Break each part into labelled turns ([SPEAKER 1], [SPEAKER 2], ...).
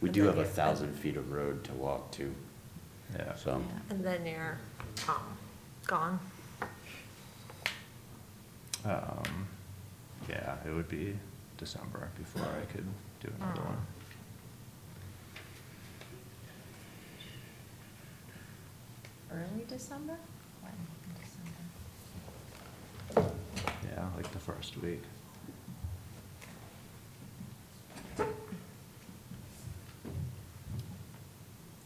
[SPEAKER 1] We
[SPEAKER 2] And
[SPEAKER 1] do
[SPEAKER 2] then
[SPEAKER 1] have a
[SPEAKER 2] you're-
[SPEAKER 1] thousand feet of road to walk to,
[SPEAKER 3] Yeah.
[SPEAKER 1] so.
[SPEAKER 2] And then you're, um, gone.
[SPEAKER 3] Um, yeah, it would be December before I could do another one.
[SPEAKER 4] Early December? When in December?
[SPEAKER 3] Yeah, like the first week.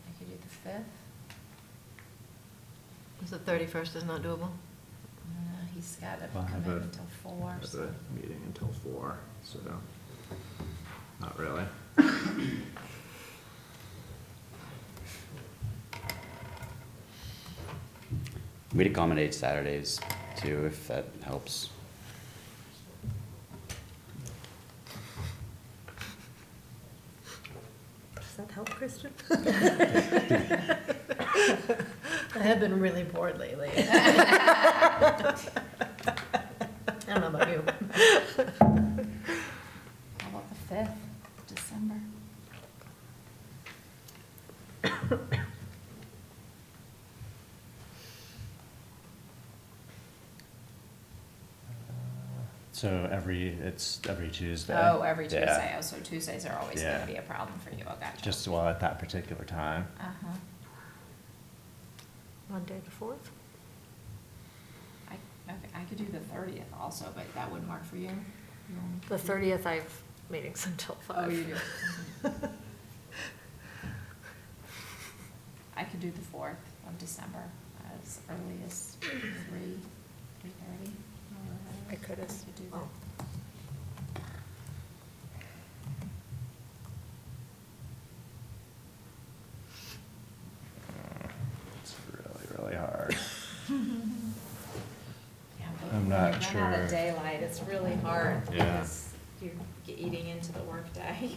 [SPEAKER 4] I could do the fifth.
[SPEAKER 5] Is the thirty-first is not doable?
[SPEAKER 4] No, Uh, he's got a
[SPEAKER 3] Well, I have
[SPEAKER 4] commitment
[SPEAKER 3] a-
[SPEAKER 4] until
[SPEAKER 3] I
[SPEAKER 4] four,
[SPEAKER 3] have
[SPEAKER 4] so.
[SPEAKER 3] a meeting until four, so not really.
[SPEAKER 1] We'd accommodate Saturdays too, if that helps.
[SPEAKER 2] Does that help, Kristen?
[SPEAKER 5] I have been really bored lately.
[SPEAKER 2] I don't know about you.
[SPEAKER 4] How about the fifth, December?
[SPEAKER 3] So every, it's every Tuesday?
[SPEAKER 4] Oh, every
[SPEAKER 3] Yeah.
[SPEAKER 4] Tuesday, oh, so Tuesdays are always
[SPEAKER 3] Yeah.
[SPEAKER 4] gonna be a problem for you, I gotcha.
[SPEAKER 3] Just well at that particular time.
[SPEAKER 4] Uh-huh,
[SPEAKER 2] Monday the fourth?
[SPEAKER 4] I, okay, I could do the thirtieth also, but that wouldn't work for you? You only
[SPEAKER 2] The
[SPEAKER 4] could do-
[SPEAKER 2] thirtieth, I have meetings until
[SPEAKER 4] Oh,
[SPEAKER 2] five.
[SPEAKER 4] you do. I could do the fourth of December as early as three, three thirty.
[SPEAKER 2] I could as
[SPEAKER 4] do
[SPEAKER 5] Oh.
[SPEAKER 2] well.
[SPEAKER 4] that.
[SPEAKER 3] Mm, It's really, really hard.
[SPEAKER 4] Yeah,
[SPEAKER 3] I'm
[SPEAKER 4] but when you
[SPEAKER 3] not
[SPEAKER 4] Run out
[SPEAKER 3] sure.
[SPEAKER 4] of daylight, it's really hard
[SPEAKER 3] Yeah.
[SPEAKER 4] because you're g- eating into the workday.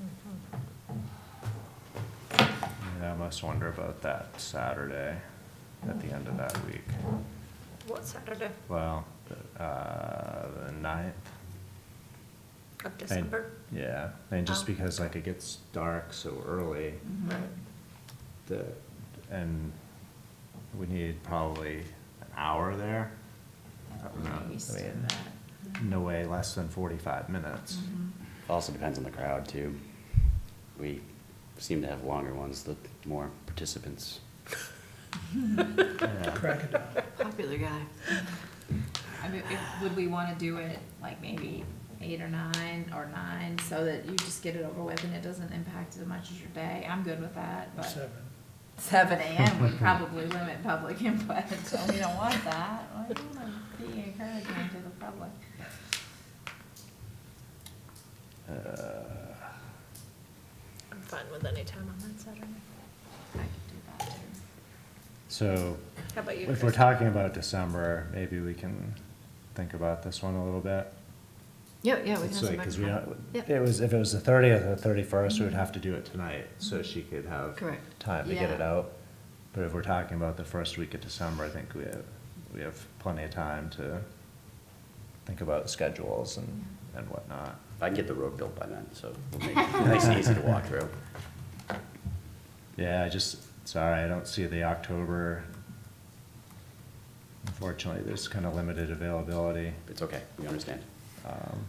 [SPEAKER 2] Mhm.
[SPEAKER 3] Yeah, I must wonder about that Saturday at the end of that week.
[SPEAKER 2] What Saturday
[SPEAKER 3] Well, the, uh, the ninth.
[SPEAKER 2] of
[SPEAKER 3] I-
[SPEAKER 2] December?
[SPEAKER 3] Yeah, and just
[SPEAKER 2] Oh.
[SPEAKER 3] because like it gets dark so early,
[SPEAKER 2] Right.
[SPEAKER 3] the, and we need probably an hour there. I don't know,
[SPEAKER 4] I'm used
[SPEAKER 3] I
[SPEAKER 4] to
[SPEAKER 3] mean,
[SPEAKER 4] that.
[SPEAKER 3] No way less than forty-five minutes.
[SPEAKER 2] Mm-hmm.
[SPEAKER 4] Mhm.
[SPEAKER 1] Also depends on the crowd too. We seem to have longer ones, the more participants.
[SPEAKER 2] Mm-hmm.
[SPEAKER 3] Yeah.
[SPEAKER 5] Popular guy.
[SPEAKER 4] I mean, if, would we wanna do it like maybe eight or nine or nine so that you just get it over with and it doesn't impact as much as your day? I'm good with that, but. Seven. AM would probably limit public input, so we don't want that. We wanna be encouraging to the public.
[SPEAKER 3] Uh,
[SPEAKER 2] I'm fine with any time on that Saturday.
[SPEAKER 4] I could do that too.
[SPEAKER 3] So,
[SPEAKER 2] How about you,
[SPEAKER 3] if we're
[SPEAKER 2] Kristen?
[SPEAKER 3] talking about December, maybe we can think about this one a little bit.
[SPEAKER 5] Yeah, yeah, we have
[SPEAKER 3] It's
[SPEAKER 5] some
[SPEAKER 3] like, cause we
[SPEAKER 5] extra.
[SPEAKER 3] don't,
[SPEAKER 5] Yep.
[SPEAKER 3] it was, if it was the thirtieth or thirty-first, we would have to do it tonight, so she could have
[SPEAKER 5] Mm-hmm. Correct.
[SPEAKER 3] time to get it
[SPEAKER 5] Yeah.
[SPEAKER 3] out. But if we're talking about the first week of December, I think we have, we have plenty of time to think about schedules and, and whatnot.
[SPEAKER 1] I can get the road built by then, so it'll make it nice and easy to walk through.
[SPEAKER 3] Yeah, I just, sorry, I don't see the October. Unfortunately, there's kind of limited availability.
[SPEAKER 1] It's okay, we understand.
[SPEAKER 3] Um,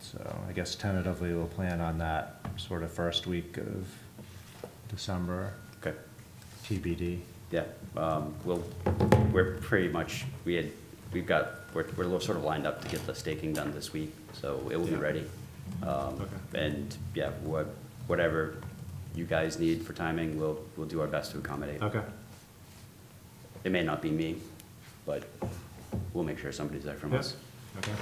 [SPEAKER 3] So I guess tentatively we'll plan on that sort of first week of December,
[SPEAKER 1] Okay,
[SPEAKER 3] TBD.
[SPEAKER 1] yeah, um, well, we're pretty much, we had, we've got, we're, we're a little sort of lined up to get the staking done this week, so it will be
[SPEAKER 3] Yeah.
[SPEAKER 1] ready. Um,
[SPEAKER 3] Okay.
[SPEAKER 1] and, yeah, what, whatever you guys need for timing, we'll, we'll do our best to accommodate. It may not be me, but we'll make sure somebody's there from us.
[SPEAKER 3] okay.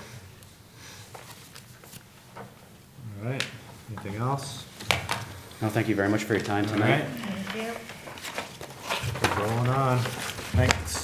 [SPEAKER 3] All right, anything else?
[SPEAKER 1] No, thank you very much for your time
[SPEAKER 3] All
[SPEAKER 1] tonight.
[SPEAKER 3] right,
[SPEAKER 2] Thank you.
[SPEAKER 3] rolling on. Thanks.